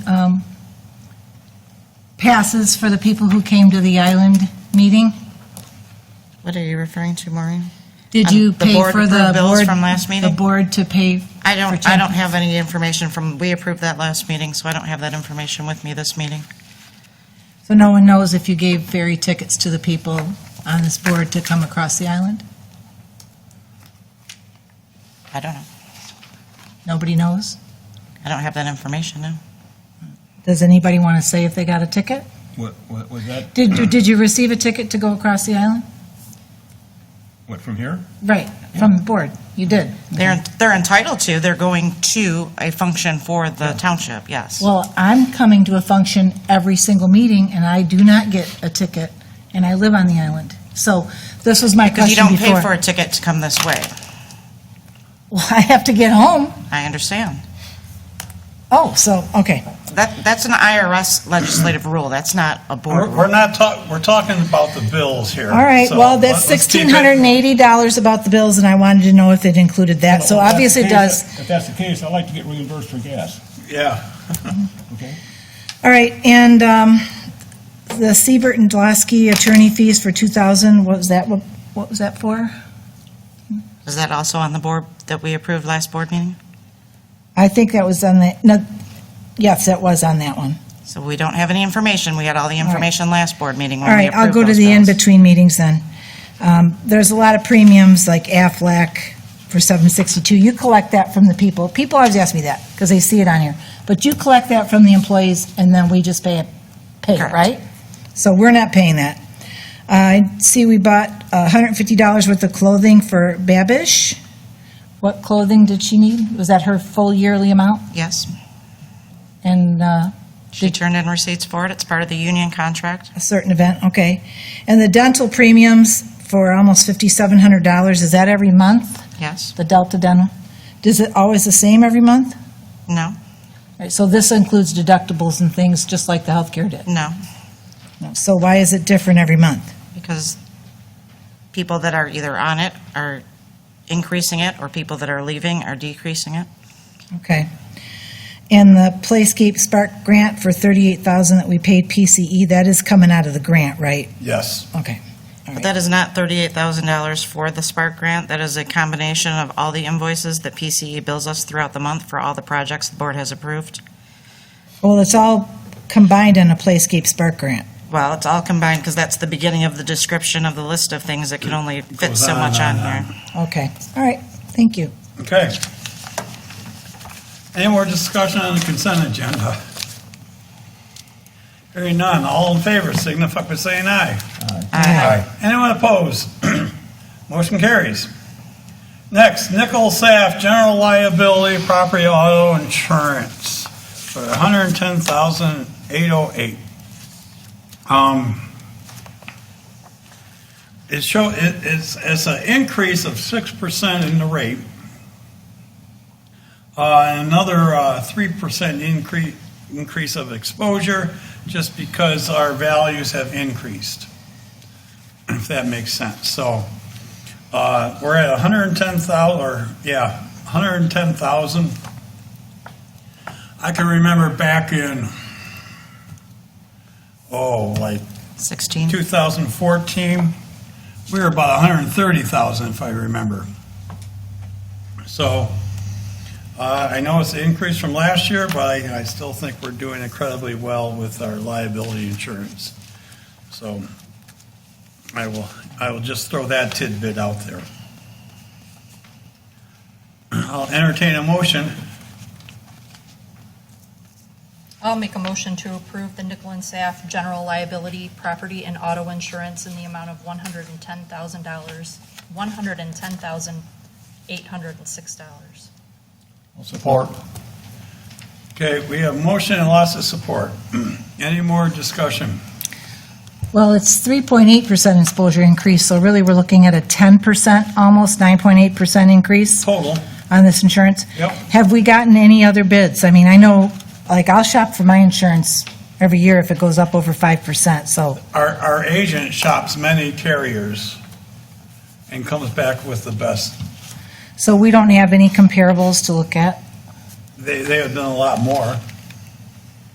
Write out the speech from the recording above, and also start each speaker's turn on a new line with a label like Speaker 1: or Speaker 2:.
Speaker 1: um, passes for the people who came to the island meeting?
Speaker 2: What are you referring to, Maureen?
Speaker 1: Did
Speaker 2: Um,
Speaker 1: you
Speaker 2: the
Speaker 1: pay
Speaker 2: board
Speaker 1: for the
Speaker 2: approved bills
Speaker 1: board,
Speaker 2: from last
Speaker 1: the
Speaker 2: meeting?
Speaker 1: board to pay?
Speaker 2: I
Speaker 1: for
Speaker 2: don't, I
Speaker 1: Jen-
Speaker 2: don't have any information from, we approved that last meeting, so I don't have that information with me this meeting.
Speaker 1: So no one knows if you gave ferry tickets to the people on this board to come across the island?
Speaker 2: I don't know.
Speaker 1: Nobody knows?
Speaker 2: I don't have that information, no.
Speaker 1: Does anybody want to say if they got a ticket?
Speaker 3: What, what was that?
Speaker 1: Did, you- did you receive a ticket to go across the island?
Speaker 3: What, from here?
Speaker 1: Right, from the board, you did.
Speaker 2: They're, they're entitled to, they're going to a function for the township, yes.
Speaker 1: Well, I'm coming to a function every single meeting, and I do not get a ticket, and I live on the island. So this was my
Speaker 2: Because you
Speaker 1: question
Speaker 2: don't pay for
Speaker 1: before.
Speaker 2: a ticket to come this way.
Speaker 1: Well, I have to get home.
Speaker 2: I understand.
Speaker 1: Oh, so, okay.
Speaker 2: That, that's an IRS legislative rule, that's not a board
Speaker 4: We're we're
Speaker 2: rule.
Speaker 4: not talking, we're talking about the bills here.
Speaker 1: All right,
Speaker 4: so
Speaker 1: well, that's
Speaker 4: let's keep it-
Speaker 1: sixteen hundred and eighty dollars about the bills, and I wanted to know if it included that, so
Speaker 3: Well, if
Speaker 1: obviously it
Speaker 3: that's
Speaker 1: does.
Speaker 3: the case- If that's the case, I'd like to get reimbursed for gas,
Speaker 4: Yeah,
Speaker 3: okay?
Speaker 1: All right, and um, the Siebert and Dlasky attorney fees for two thousand, what was that, what what was that for?
Speaker 2: Is that also on the board that we approved last board meeting?
Speaker 1: I think that was on the, no, yes, that was on that one.
Speaker 2: So we don't have any information, we had all the information last board meeting
Speaker 1: All
Speaker 2: when we
Speaker 1: right, I'll
Speaker 2: approved
Speaker 1: go to
Speaker 2: those
Speaker 1: the
Speaker 2: bills.
Speaker 1: in-between meetings then. Um, There's a lot of premiums, like Aflac for 762. You collect that from the people. People always ask me that, because they see it on here. But you collect that from the employees, and then we just pay it, pay it,
Speaker 2: Correct.
Speaker 1: right? So we're not paying that. I see we bought $150 worth of clothing for Babish. What clothing did she need? Was that her full yearly amount?
Speaker 2: Yes,
Speaker 1: And uh,
Speaker 2: she turned in receipts for it, it's part of the union contract.
Speaker 1: a certain event, okay. And the dental premiums for almost $5,700, is that every month,
Speaker 2: Yes,
Speaker 1: the Delta Dental? Is it always the same every month?
Speaker 2: no,
Speaker 1: All right, So this includes deductibles and things, just like the healthcare did.
Speaker 2: no,
Speaker 1: So why is it different every month?
Speaker 2: because people that are either on it are increasing it, or people that are leaving are decreasing it.
Speaker 1: Okay. And the Playscape Spark grant for $38,000 that we paid PCE, that is coming out of the grant, right?
Speaker 4: yes.
Speaker 1: Okay. All
Speaker 2: But
Speaker 1: right.
Speaker 2: that is not thirty-eight thousand dollars for the Spark grant, that is a combination of all the invoices that PCE bills us throughout the month for all the projects the board has approved.
Speaker 1: Well, it's all combined in a Playscape Spark grant.
Speaker 2: Well, it's all combined, because that's the beginning of the description of the list of things that can only fit
Speaker 4: Goes
Speaker 2: so
Speaker 4: on
Speaker 2: much on
Speaker 4: and on
Speaker 2: here.
Speaker 4: and
Speaker 1: Okay, all right, thank you.
Speaker 4: Okay. Any more discussion on the consent agenda? Hearing none, all in favor signify by saying aye.
Speaker 2: Aye.
Speaker 4: Anyone opposed? Motion carries. Next, Nickel Saff General Liability Property Auto Insurance for $110,808. Um, It show, it- it's, it's an increase of 6% in the rate. Uh, and Another uh, 3% increase, increase of exposure, just because our values have increased if that makes sense. So uh, we're at 110,000, or yeah, 110,000. I can remember back in, oh, like
Speaker 2: Sixteen.
Speaker 4: 2014, we were about 130,000 if I remember. So uh, I know it's an increase from last year, but I I still think we're doing incredibly well with our liability insurance. So I will, I will just throw that tidbit out there. I'll entertain a motion.
Speaker 5: I'll make a motion to approve the Nickel and Saff general liability, property, and auto insurance in the amount of one hundred and ten thousand dollars, one hundred and ten thousand, eight hundred and six dollars.
Speaker 4: Support. Okay, we have motion and lots of support. Any more discussion?
Speaker 1: Well, it's 3.8% exposure increase, so really, we're looking at a 10%, almost 9.8% increase
Speaker 4: Total?
Speaker 1: on this insurance.
Speaker 4: Yep.
Speaker 1: Have we gotten any other bids? I mean, I know, like, I'll shop for my insurance every year if it goes up over 5%, so,
Speaker 4: Our, our agent shops many carriers and comes back with the best.
Speaker 1: so we don't have any comparables to look at?
Speaker 4: They, they have done a lot more.